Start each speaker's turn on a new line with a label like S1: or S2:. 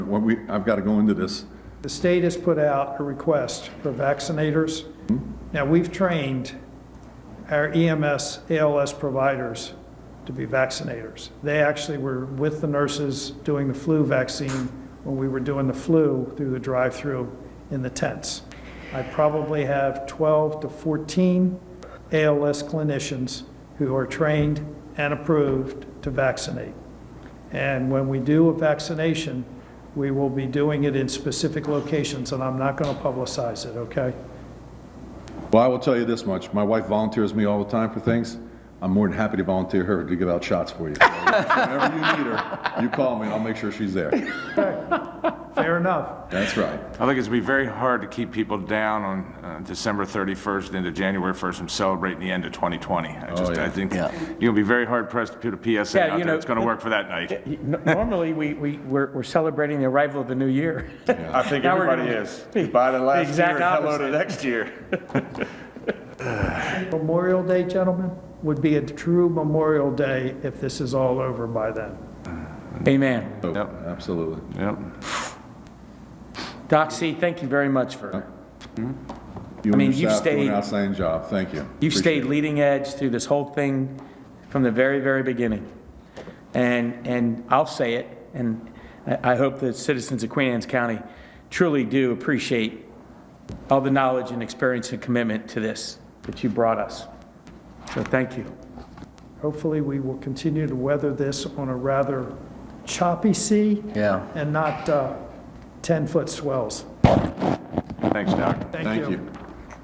S1: what we, I've got to go into this.
S2: The state has put out a request for vaccinators. Now, we've trained our E EMS, ALS providers to be vaccinators. They actually were with the nurses doing the flu vaccine when we were doing the flu through the drive-through in the tents. I probably have 12 to 14 ALS clinicians who are trained and approved to vaccinate. And when we do a vaccination, we will be doing it in specific locations, and I'm not going to publicize it, okay?
S1: Well, I will tell you this much, my wife volunteers me all the time for things. I'm more than happy to volunteer her to give out shots for you. So Whenever you need her, you call me and I'll make sure she's there.
S2: Fair enough.
S1: That's right.
S3: I think it's going to be very hard to keep people down on uh, December 31st into January 1st from celebrating the end of 2020. I just,
S1: yeah.
S3: I think
S4: Yeah.
S3: you're going to be very hard pressed to put a PSA
S5: Yeah,
S3: out
S5: you
S3: there
S5: know,
S3: It's going to work for that night.
S5: N- Normally, we, we, we're, we're celebrating the arrival of the new year.
S3: I think
S5: Now we're everybody gonna- is. Goodbye to last year exact and hello to opposite.
S3: next year.
S2: Memorial Day, gentlemen, would be a true Memorial Day if this is all over by then.
S5: Amen.
S1: So,
S3: Yep.
S1: Absolutely.
S3: Yep.
S5: Doc C, thank you very much for,
S1: You
S5: I mean,
S1: and
S5: you've
S1: your staff do an
S5: stayed-
S1: outstanding job, thank you.
S5: you've
S1: Appreciate
S5: stayed leading edge through this whole thing from the very, very beginning. And, and I'll say it, and I, I hope the citizens of Queen Anne's County truly do appreciate all the knowledge and experience and commitment to this that you brought us. So thank you.
S2: Hopefully, we will continue to weather this on a rather choppy sea
S4: Yeah.
S2: and not 10-foot swells.
S3: Thanks, Doc.
S1: it. Thank you.